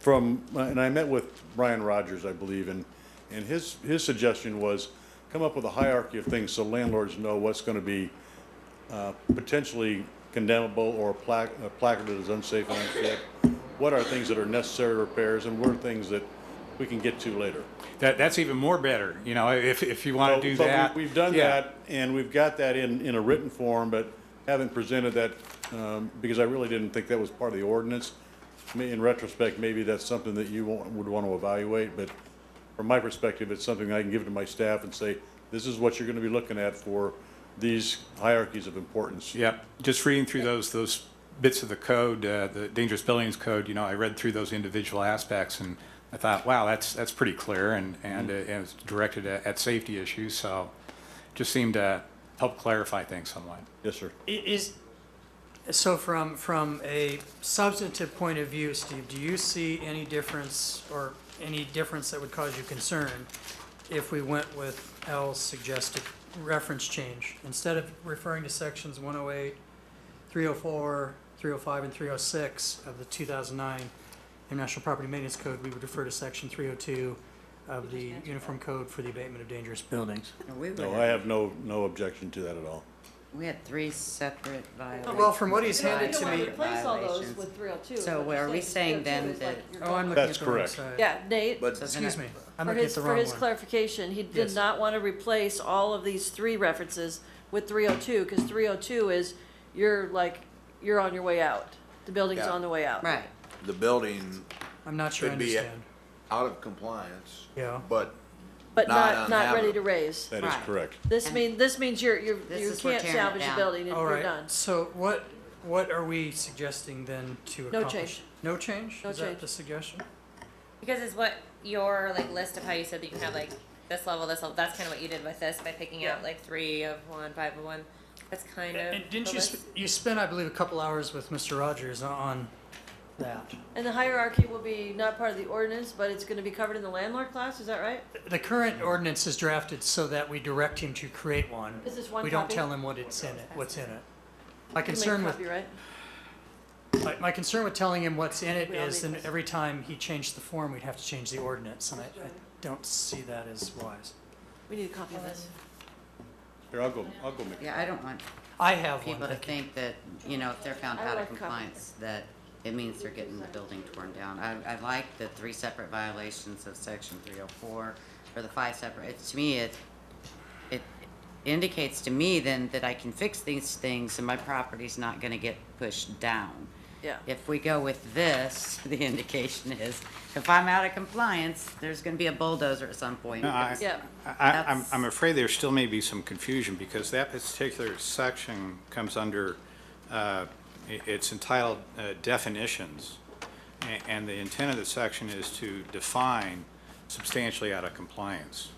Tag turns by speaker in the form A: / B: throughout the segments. A: from, uh, and I met with Brian Rogers, I believe, and, and his, his suggestion was come up with a hierarchy of things so landlords know what's gonna be, uh, potentially condemnable or pla- uh, placarded as unsafe and unfit. What are things that are necessary repairs and what are things that we can get to later?
B: That, that's even more better, you know, if, if you want to
A: So-
B: do
A: so we-
B: that.
A: We've done
B: Yeah.
A: that, and we've got that in, in a written form, but haven't presented that, um, because I really didn't think that was part of the ordinance. I mean, In retrospect, maybe that's something that you wa- would want to evaluate, but from my perspective, it's something I can give to my staff and say, this is what you're going to be looking at for these hierarchies of importance.
B: Yep, just reading through those, those bits of the code, uh, the dangerous buildings code, you know, I read through those individual aspects and I thought, wow, that's, that's pretty clear and, and uh,
A: Mm-hmm.
B: and it's directed at, at safety issues, so just seemed to help clarify things somewhat.
A: Yes, sir.
C: I- Is, so from, from a substantive point of view, Steve, do you see any difference or any difference that would cause you concern if we went with Al's suggested reference change? Instead of referring to sections 108, 304, 305, and 306 of the 2009 International Property Maintenance Code, we would refer to section 302 of the Uniform Code for the Abatement of Dangerous Buildings.
D: No, we
A: No,
D: would-
A: I have no, no objection to that at all.
D: We had three separate violations.
C: Well, from what he's
E: You know,
C: handed
E: you
C: to
E: don't wanna
C: me-
E: replace all those
D: Violations.
E: with 302.
D: So
E: What
D: where
E: you're
D: are we
E: 302
D: saying then
E: is like
D: that-
E: you're
C: Oh, I'm
E: going-
C: looking at
A: That's
C: the wrong
A: correct.
C: side.
E: Yeah, Nate,
F: But
C: Excuse me, I'm
E: for
C: looking at
E: his,
C: the
E: for
C: wrong
E: his
C: one.
E: clarification, he
C: Yes.
E: did not want to replace all of these three references with 302, because 302 is, you're like, you're on your way out. The building's
F: Yeah.
E: on the way out.
D: Right.
F: the building
C: I'm not sure I
F: could be
C: understand.
F: out of compliance,
C: Yeah.
F: but
E: But
F: Not
E: not, not ready
F: uninhabitable.
E: to raise.
A: That is
D: Right.
A: correct.
E: This
D: And-
E: mean, this means you're, you're,
D: This
E: you
D: is we're
E: can't
D: tearing it
E: salvage the
D: down.
E: building and
C: All
E: you're
C: right.
E: done.
C: So what what are we suggesting then to
E: No
C: accomplish?
E: change.
C: No change.
E: No
C: is that
E: change.
C: the suggestion?
G: Because it's what your like list of how you said that you can have like this level, this level. That's kind of what you did with this by picking
E: Yeah.
G: out like three of one, five of one. That's kind of.
C: And didn't
G: the
C: you
G: list.
C: sp- you spent I believe a couple hours with Mr. Rogers on that?
E: And the hierarchy will be not part of the ordinance, but it's gonna be covered in the landlord class, is that right?
C: The current ordinance is drafted so that we direct him to create one.
E: Is this one
C: we don't
E: copy?
C: tell him what it's in it. What's in it? My
E: You make
C: concern with
E: copyright.
C: my, my concern with telling him what's in it
E: We all
C: is
E: need
C: then
E: this.
C: every time he changed the form, we'd have to change the ordinance, and I, I don't see that as wise.
E: We need a copy of this.
A: Here, I'll go, I'll go make,
D: Yeah, I don't want
C: I have one.
D: people to
C: thank you.
D: think that, you know, if they're found
E: I
D: out
E: like
D: of
E: coffee.
D: compliance, that it means they're getting the building torn down. I, I like the three separate violations of section three oh four, or the five separate, it's, to me, it, it indicates to me then that I can fix these things and my property's not gonna get pushed down.
E: Yeah.
D: If we go with this, the indication is, if I'm out of compliance, there's gonna be a bulldozer at some point.
B: No, I,
E: Yeah.
B: I, I'm,
D: That's-
B: I'm afraid there still may be some confusion because that particular section comes under, uh, i- it's entitled uh, definitions. A- And the intent of the section is to define substantially out of compliance.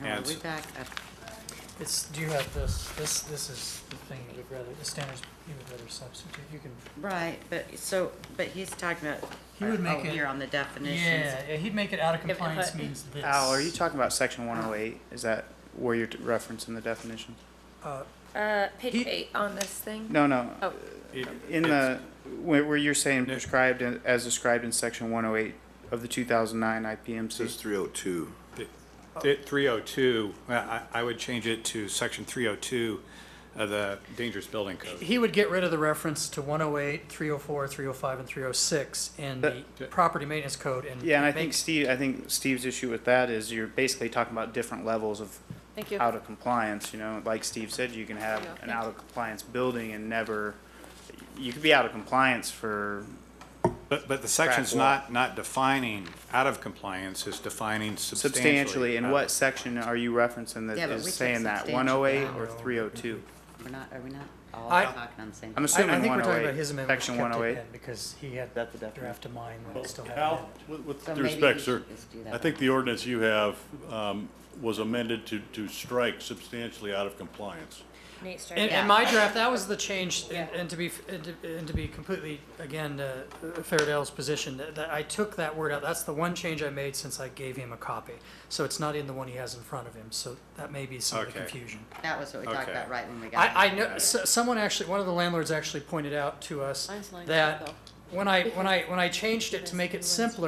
H: Oh,
D: All right,
B: And
D: we
B: s-
D: back up.
C: It's, do you have this? This, this is the thing you would rather, the standards you would rather substitute. You can.
D: Right, but so, but he's talking about.
C: He would make
D: oh,
C: it-
D: Here on the definitions.
C: Yeah, yeah, he'd make it out of
G: it
C: compliance
G: put-
C: means this.
H: Al, are you talking about section 108? Is that where you're referencing the definition?
G: Uh, page
C: He-
G: eight on this thing.
H: No, no.
G: Oh.
B: It-
H: In
B: it's-
H: the, where where you're saying
B: No.
H: prescribed in- as described in section 108 of the 2009
F: says
H: IPMC.
F: 302.
H: Oh.
B: It- 302, well, I, I would change it to section 302 of the dangerous building code.
C: He would get rid of the reference to 108, 304, 305, and 306 in the
B: That-
C: property maintenance code and.
H: Yeah, and I
C: make-
H: think Steve, I think Steve's issue with that is you're basically talking about different levels of
E: Thank you.
H: out of compliance, you know, like Steve said, you can have
E: Yeah.
H: an out of compliance building and never, you could be out of compliance for
B: But, but the section's
H: wall.
B: not, not defining out of compliance, it's defining substantially.
H: substantially,
B: out
H: and
B: of-
H: what section are you referencing
D: Yeah, but
H: that
D: we
H: is
D: took
H: saying that,
D: substantial
H: one oh eight
D: out.
H: or three oh two?
D: We're not, are we not all
C: I-
D: talking on the same?
C: I,
H: I'm
C: I
H: assuming
C: think
H: one
C: we're
H: oh
C: talking about his
H: eight,
C: amendment.
H: section
C: kept it
H: one oh eight.
C: in Because he had
H: That the definition?
C: draft of mine when it still had.
A: Al,
C: it.
A: with, with
D: So
A: due
D: maybe
A: respect,
D: we
A: sir,
D: should just do that
A: I think the ordinance you have, um, was amended to, to strike substantially out of compliance.
G: Nate started.
C: And,
D: Yeah.
C: and my draft, that was the change, and, and to be, f- and to, and to be completely, again, uh, fair to Al's position, that, that I took that word out, that's the one change I made since I gave him a copy. So it's not in the one he has in front of him, so that may be some of the
B: Okay.
C: confusion.
D: That was what we talked
B: Okay.
D: about right when we got.
C: I, I
D: here.
C: know, s- someone actually, one of the landlords actually pointed out to us
E: Mine's lined up,
C: that
E: though.
C: when I, when I, when I changed it to make it simpler,